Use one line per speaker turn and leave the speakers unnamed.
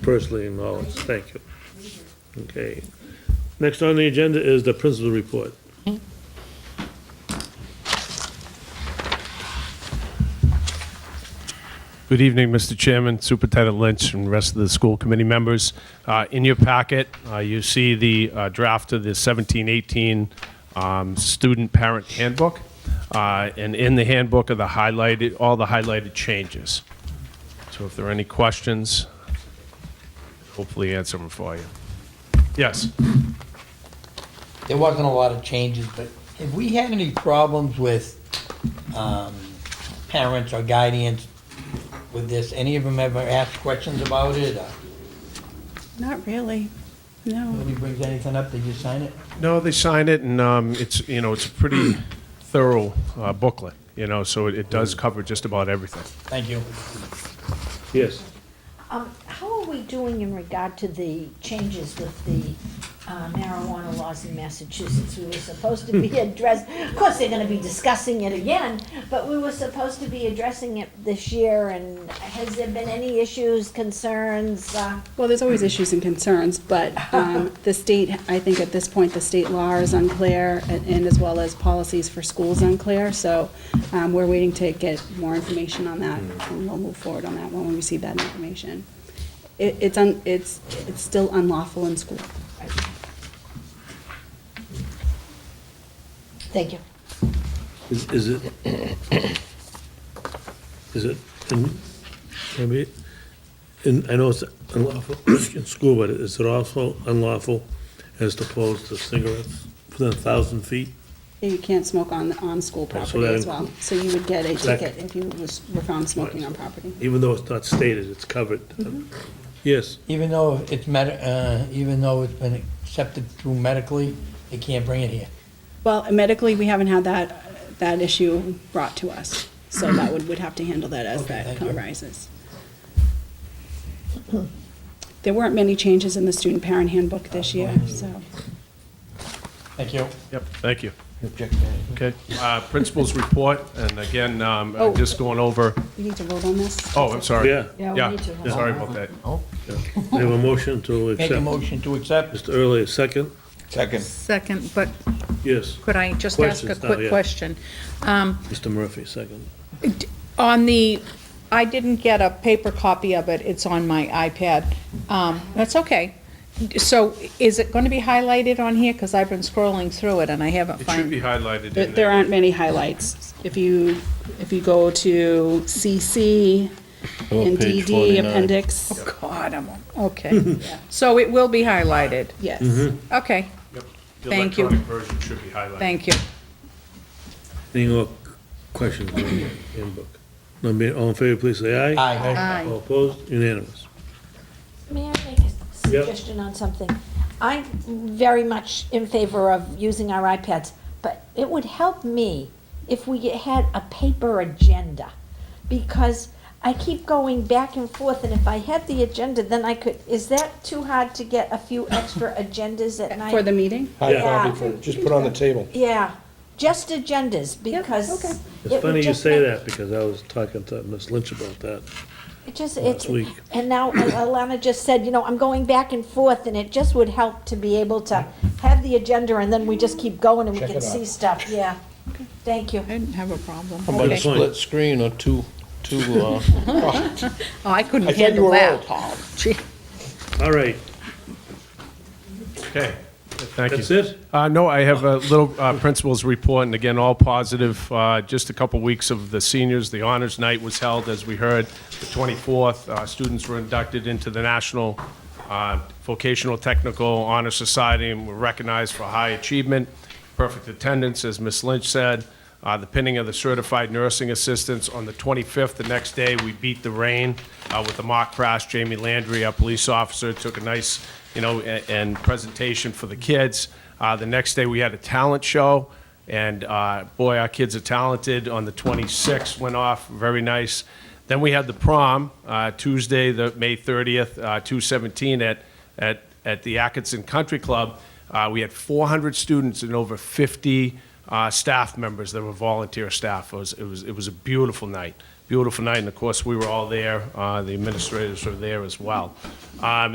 personally acknowledged, thank you. Okay. Next on the agenda is the principal report.
Good evening, Mr. Chairman, Superintendent Lynch, and rest of the school committee members. Uh, In your packet, uh, you see the uh, draft of the 1718 um, Student Parent Handbook, Uh, and in the handbook are the highlighted, all the highlighted changes. So if there are any questions, hopefully answer them for you. Yes?
there wasn't a lot of changes, but have we had any problems with um, parents or guardians with this? Any of them ever asked questions about it? uh, or
Not really, no.
Nobody brings anything up, they just sign it?
No, they signed it, and um, it's, you know, it's a pretty thorough uh, booklet, you know, so it- it does cover just about everything.
Thank you.
Yes.
Um, how are we doing in regard to the changes with the uh, marijuana laws in Massachusetts? We were supposed to be address, of course, they're gonna be discussing it again, but we were supposed to be addressing it this year, and has there been any issues, concerns? uh,
Well, there's always issues and concerns, but um, the state, I think at this point, the state law is unclear, and and as well as policies for schools unclear, so um, we're waiting to get more information on that, and we'll move forward on that when we receive that information. It- It's, un- it's, it's still unlawful in school.
Thank you.
Is, is it, is it, in- I mean, in I know it's unlawful in school, but is it also unlawful as opposed to cigarettes within a thousand feet?
You can't smoke on, on school
Right, so
property as
that-
well, so you would get a
That-
ticket if you was, were found smoking on property.
Even though it's not stated, it's covered. Yes,
Even though it's med, uh, even though it's been accepted through medically, they can't bring it here.
Well, medically, we haven't had that, that issue brought to us, so that would, would have to handle that as
Okay,
that
thank you.
arises. There weren't many changes in the student parent handbook this
Oh,
year, so.
Thank you.
Yep, thank you.
Object to anything.
Okay, uh, principal's report, and again, um, I'm
Oh.
just going over,
We need to vote on this?
oh, I'm sorry.
Yeah.
Yeah, we need to vote.
Sorry about that.
we have a motion to
Make a
accept.
motion to accept?
Mr. Early, a second?
Second.
Second, but
Yes.
could I just ask a
Questions now, yeah.
quick question? Um,
Mr. Murphy, second.
On the, I didn't get a paper copy of it, it's on my iPad. Um, That's okay. So is it going to be highlighted on here? Because I've been scrolling through it and I haven't
It should
found.
be highlighted
There
in
there
there.
aren't many highlights. If you, if you go to CC and
page
DD
49.
appendix,
Oh, God, I'm, okay. So it will be highlighted?
Mm-hmm.
yes.
Okay,
Yep.
Thank you.
The electronic version should be highlighted.
thank you.
Any more questions on the handbook? None being, all in favor, please say aye.
Aye.
Aye.
All opposed, unanimous.
May I make a suggestion on something? I'm very much in favor of using our iPads, but it would help me if we had a paper agenda. Because I keep going back and forth, and if I had the agenda, then I could, is that too hard to get a few extra agendas at night?
For the meeting?
High
Yeah.
copy for, just put on the table.
Yeah, just agendas, because.
okay.
it would
It's funny you
just
say
make-
that, because I was talking to Ms. Lynch about that.
It just, it's,
week.
and now Alana just said, you know, I'm going back and forth, and it just would help to be able to have the agenda, and then we just keep going and we
Check
can
it out.
see stuff, yeah. Thank you.
I didn't have a problem.
How about a
point.
Okay.
split screen or two, two, uh,
Oh, I
I
couldn't
thought you
handle
were
that,
old.
Paul. Gee.
All right,
Okay, thank you.
that's it?
Uh, No, I have a little uh, principal's report, and again, all positive. Uh, Just a couple weeks of the seniors, the honors night was held, as we heard, the 24th. Uh, Students were inducted into the National uh, Vocational Technical Honor Society and were recognized for high achievement, perfect attendance, as Ms. Lynch said. Uh, The pinning of the certified nursing assistants on the 25th, the next day, we beat the rain uh, with a mock crash. Jamie Landry, our police officer, took a nice, you know, a- and presentation for the kids. Uh, The next day, we had a talent show, and uh, boy, our kids are talented. On the 26th, went off, very nice. Then we had the prom, uh, Tuesday, the May 30th, uh, 217 at, at, at the Atkinson Country Club. Uh, We had 400 students and over 50 uh, staff members that were volunteer staff. It was, it was, it was a beautiful night, beautiful night, and of course, we were all there, uh, the administrators were there as well. Um,